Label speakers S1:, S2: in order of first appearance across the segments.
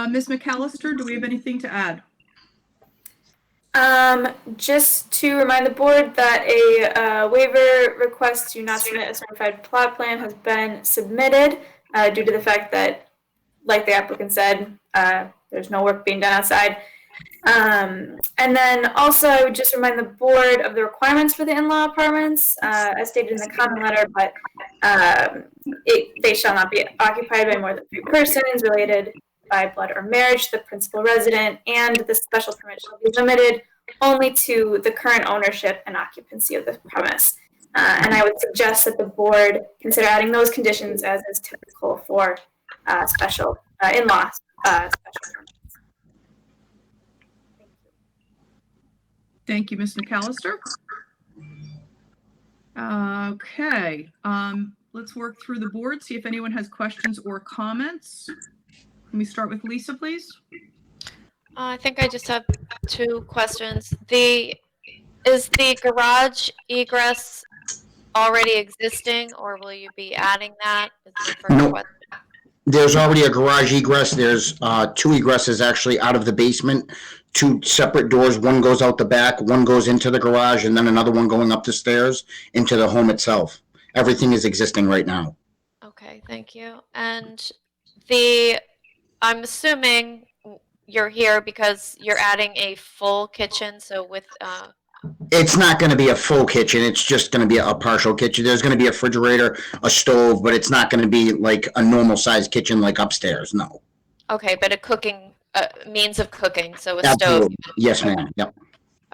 S1: Uh, Ms. McAllister, do we have anything to add?
S2: Um, just to remind the board that a uh, waiver request to not submit a certified plot plan has been submitted uh, due to the fact that, like the applicant said, uh, there's no work being done outside. Um, and then also, I would just remind the board of the requirements for the in-law apartments, uh, as stated in the comment letter, but um, it, they shall not be occupied by more than three persons related by blood or marriage to the principal resident, and the special permit shall be limited only to the current ownership and occupancy of the premise. Uh, and I would suggest that the board consider adding those conditions as is typical for uh, special uh, in-law uh, special permits.
S1: Thank you, Ms. McAllister. Okay, um, let's work through the board, see if anyone has questions or comments. Let me start with Lisa, please.
S3: Uh, I think I just have two questions. The, is the garage egress already existing or will you be adding that? Is the first
S4: No.
S3: question.
S4: There's already a garage egress. There's uh, two egresses actually out of the basement, two separate doors. One goes out the back, one goes into the garage, and then another one going up the stairs into the home itself. Everything is existing right now.
S3: Okay, thank you. And the, I'm assuming you're here because you're adding a full kitchen, so with, uh,
S4: It's not going to be a full kitchen. It's just going to be a partial kitchen. There's going to be a refrigerator, a stove, but it's not going to be like a normal sized kitchen like upstairs. No.
S3: okay, but a cooking, uh, means of cooking, so a stove.
S4: Absolutely. Yes, ma'am. Yep.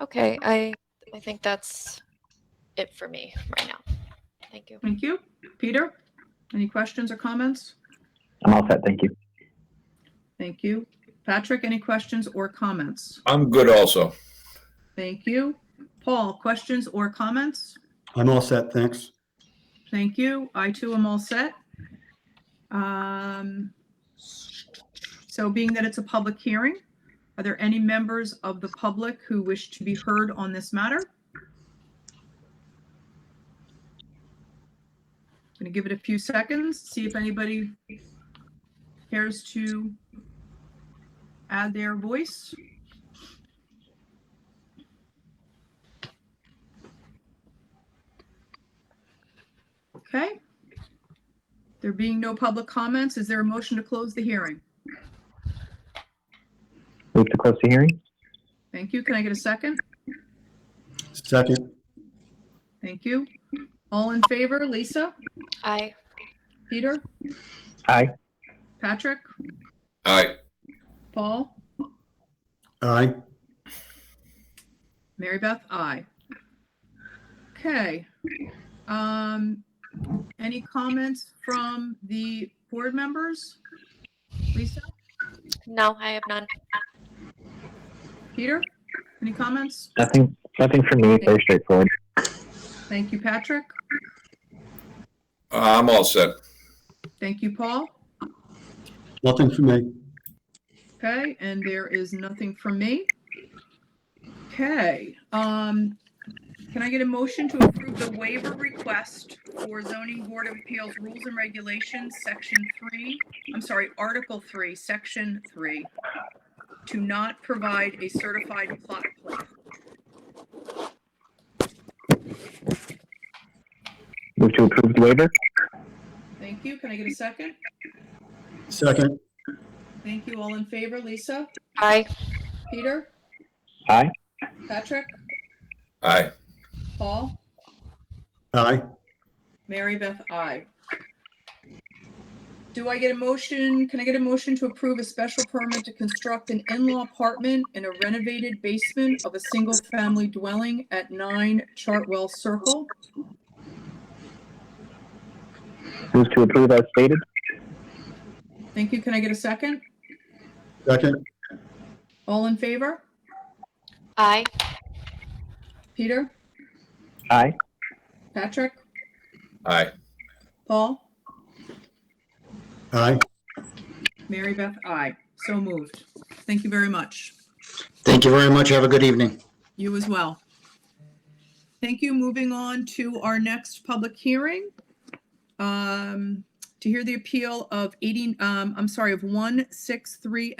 S3: Okay, I, I think that's it for me right now. Thank you.
S1: Thank you. Peter, any questions or comments?
S5: I'm all set, thank you.
S1: Thank you. Patrick, any questions or comments?
S6: I'm good also.
S1: Thank you. Paul, questions or comments?
S7: I'm all set, thanks.
S1: Thank you. I too am all set. Um, So being that it's a public hearing, are there any members of the public who wish to be heard on this matter? I'm Going to give it a few seconds, see if anybody cares to add their voice. Okay. There being no public comments, is there a motion to close the hearing?
S5: Move to close the hearing?
S1: Thank you. Can I get a second?
S7: Second,
S1: Thank you. All in favor, Lisa,
S3: Aye.
S1: Peter,
S5: Aye.
S1: Patrick,
S6: All right.
S1: Paul,
S7: aye.
S1: Mary Beth, I. Okay. Um, any comments from the board members? Lisa,
S3: No, I have none.
S1: Peter, any comments?
S5: Nothing, nothing for me, very straightforward.
S1: Thank you, Patrick.
S6: I'm all set.
S1: Thank you, Paul.
S7: Nothing for me.
S1: Okay, and there is nothing from me. Okay, um, can I get a motion to approve the waiver request for zoning board of appeals rules and regulations, section three, I'm sorry, article three, section three, to not provide a certified plot plan?
S5: Move to approve the waiver?
S1: Thank you. Can I get a second?
S7: Second,
S1: Thank you. All in favor, Lisa,
S3: Aye.
S1: Peter,
S5: Aye.
S1: Patrick,
S6: All right.
S1: Paul?
S7: aye.
S1: Mary Beth, I. Do I get a motion, can I get a motion to approve a special permit to construct an in-law apartment in a renovated basement of a single-family dwelling at 9 Chartwell Circle?
S5: Move to approve as stated?
S1: Thank you, can I get a second?
S7: Second,
S1: All in favor?
S3: Aye.
S1: Peter?
S5: Aye.
S1: Patrick?
S6: All right.
S1: Paul?
S7: aye.
S1: Mary Beth, I. So moved. Thank you very much.
S4: Thank you very much. Have a good evening.
S1: You as well. Thank you. Moving on to our next public hearing. Um, to hear the appeal of eighty, um, I'm sorry, of one six three